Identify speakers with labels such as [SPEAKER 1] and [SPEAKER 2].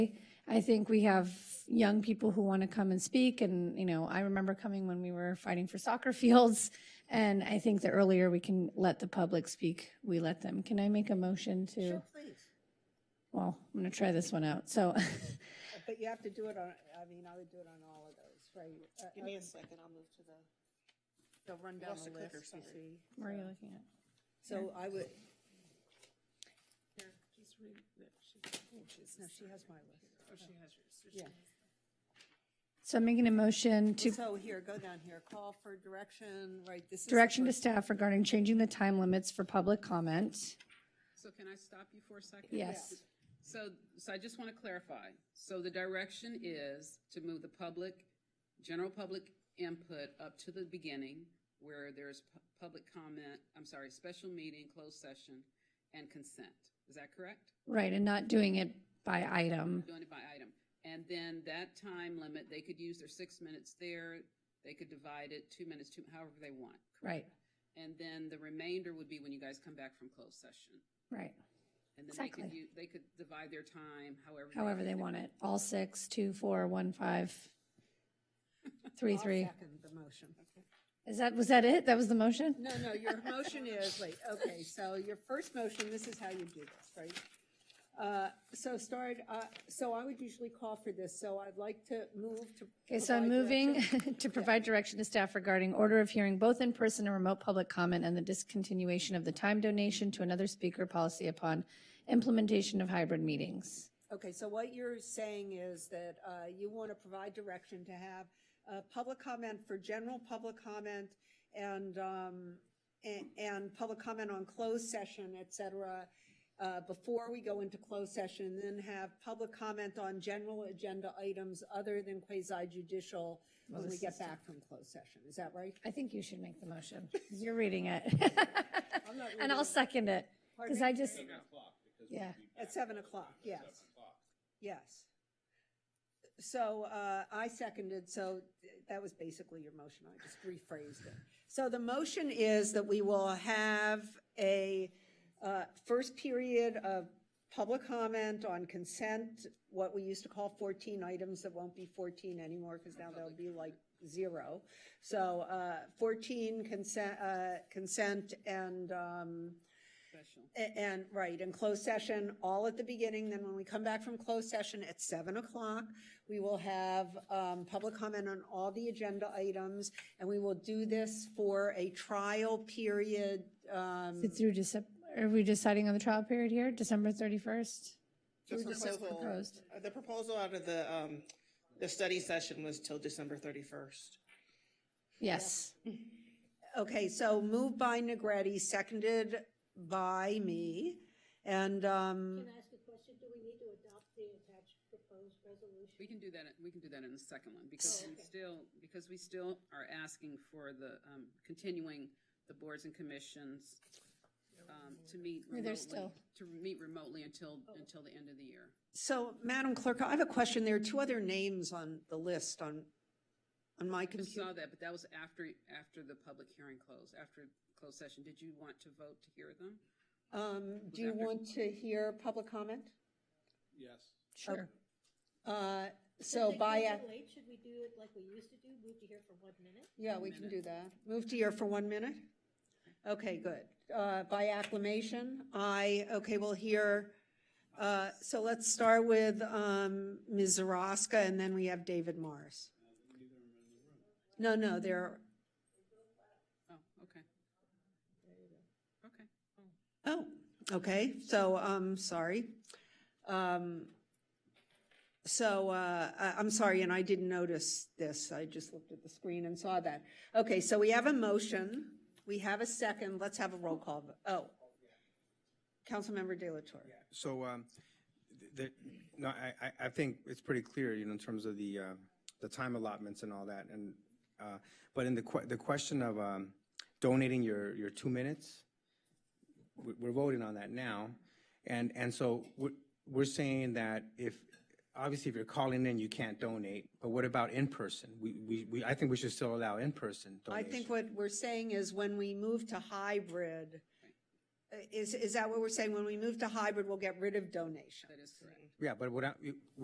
[SPEAKER 1] I think we have young people who want to come and speak. And, you know, I remember coming when we were fighting for soccer fields. And I think the earlier we can let the public speak, we let them. Can I make a motion to,
[SPEAKER 2] Sure, please.
[SPEAKER 1] well, I'm going to try this one out. So
[SPEAKER 2] Uh, But you have to do it on, I mean, I would do it on all of those, right? Uh,
[SPEAKER 3] Give me
[SPEAKER 2] uh,
[SPEAKER 3] a second, I'll move to the,
[SPEAKER 2] They'll run down
[SPEAKER 3] lost
[SPEAKER 2] the
[SPEAKER 3] the clicker,
[SPEAKER 2] list, you
[SPEAKER 3] sorry.
[SPEAKER 2] see.
[SPEAKER 1] where are you looking at?
[SPEAKER 2] So I would,
[SPEAKER 3] here, just read that. She, oh, she's,
[SPEAKER 2] no, she has my list.
[SPEAKER 3] oh, she has yours.
[SPEAKER 2] Yeah.
[SPEAKER 1] So I'm making a motion to
[SPEAKER 2] So here, go down here, call for direction, right? This is the
[SPEAKER 1] direction to
[SPEAKER 2] first-
[SPEAKER 1] staff regarding changing the time limits for public comment.
[SPEAKER 4] So can I stop you for a second?
[SPEAKER 1] Yes.
[SPEAKER 4] So, so I just want to clarify. So the direction is to move the public, general public input up to the beginning where there's pu- public comment, I'm sorry, special meeting, closed session, and consent. Is that correct?
[SPEAKER 1] Right, and not doing it by item.
[SPEAKER 4] Doing it by item. And then that time limit, they could use their six minutes there. They could divide it, two minutes, two, however they want.
[SPEAKER 1] Right,
[SPEAKER 4] And then the remainder would be when you guys come back from closed session.
[SPEAKER 1] right.
[SPEAKER 4] And then they could,
[SPEAKER 1] Exactly.
[SPEAKER 4] u- they could divide their time however.
[SPEAKER 1] However they want it. All six, two, four, one, five, three,
[SPEAKER 2] I'll
[SPEAKER 1] three.
[SPEAKER 2] Second the motion.
[SPEAKER 1] Is that, was that it? That was the motion?
[SPEAKER 2] No, no, your motion is, wait, okay, so your first motion, this is how you do this, right? Uh, So start, uh, so I would usually call for this, so I'd like to move to.
[SPEAKER 1] Okay, so I'm
[SPEAKER 2] provide
[SPEAKER 1] moving
[SPEAKER 2] direction.
[SPEAKER 1] to provide direction to staff regarding order of hearing both in person and remote public comment and the discontinuation of the time donation to another speaker policy upon implementation of hybrid meetings.
[SPEAKER 2] Okay, so what you're saying is that uh, you want to provide direction to have uh, public comment for general public comment and, um, a- and public comment on closed session, et cetera, uh, before we go into closed session, then have public comment on general agenda items other than quasi judicial when we get back from closed session. Is that right?
[SPEAKER 1] I think you should make the motion. 'cause You're reading it. And I'll second it. Because I just, yeah,
[SPEAKER 2] At seven o'clock, yes. Yes. So uh, I seconded, so th- that was basically your motion. I just rephrased it. So the motion is that we will have a uh, first period of public comment on consent, what we used to call 14 items that won't be 14 anymore because now they'll be like zero. So uh, 14 consent, uh, consent and um,
[SPEAKER 4] Special.
[SPEAKER 2] a- And, right, in closed session, all at the beginning, then when we come back from closed session at seven o'clock, we will have, um, public comment on all the agenda items, and we will do this for a trial period, um,
[SPEAKER 1] it's through December, are we deciding on the trial period here, December 31st?
[SPEAKER 3] The proposal,
[SPEAKER 1] proposed.
[SPEAKER 3] uh, the proposal out of the, um, the study session was till December thirty-first.
[SPEAKER 1] Yes,
[SPEAKER 2] Okay, so moved by Negretti, seconded by me, and, um,
[SPEAKER 5] Can I ask a question? Do we need to adopt the attached proposed resolution?
[SPEAKER 4] We can do that, we can do that in the second one,
[SPEAKER 1] Oh,
[SPEAKER 4] because we still, because we still are asking for the, um, continuing the boards and commissions, um, to meet remotely.
[SPEAKER 1] still- Oh.
[SPEAKER 4] To meet remotely until, until the end of the year.
[SPEAKER 2] so, Madam Clerk, I have a question. There are two other names on the list on, on my
[SPEAKER 4] I
[SPEAKER 2] computer.
[SPEAKER 4] saw that, but that was after, after the public hearing closed, after closed session. Did you want to vote to hear them?
[SPEAKER 2] Um, do you want to hear public comment?
[SPEAKER 6] Yes.
[SPEAKER 1] sure.
[SPEAKER 2] Uh,
[SPEAKER 5] Since
[SPEAKER 2] So
[SPEAKER 5] they
[SPEAKER 2] by,
[SPEAKER 5] came
[SPEAKER 2] a-
[SPEAKER 5] in late, should we do it like we used to do, move to here for one minute?
[SPEAKER 2] yeah, we can do that. Move to your for one minute? Okay, good. Uh, By acclamation, I, okay, we'll hear, uh, so let's start with um, Ms. Zaraska, and then we have David Morris. No, no, they're,
[SPEAKER 4] Oh, okay. Okay.
[SPEAKER 2] oh, okay, so, um, sorry. Um, So, uh, I- I'm sorry, and I didn't notice this. I just looked at the screen and saw that. Okay, so we have a motion. We have a second. Let's have a roll call. vo- Oh. Councilmember De La Torre.
[SPEAKER 6] So, um, th- th- no, I, I- I think it's pretty clear, you know, in terms of the, uh, the time allotments and all that. And, uh, but in the, que- the question of um, donating your, your two minutes, we- we're voting on that now. And, and so we're, we're saying that if, obviously if you're calling in, you can't donate, but what about in person? We, we, we I think we should still allow in-person
[SPEAKER 2] I
[SPEAKER 6] donation.
[SPEAKER 2] think what we're saying is when we move to hybrid, uh, is, is that what we're saying? When we move to hybrid, we'll get rid of donations?
[SPEAKER 4] That is correct.
[SPEAKER 6] Yeah, but what, I-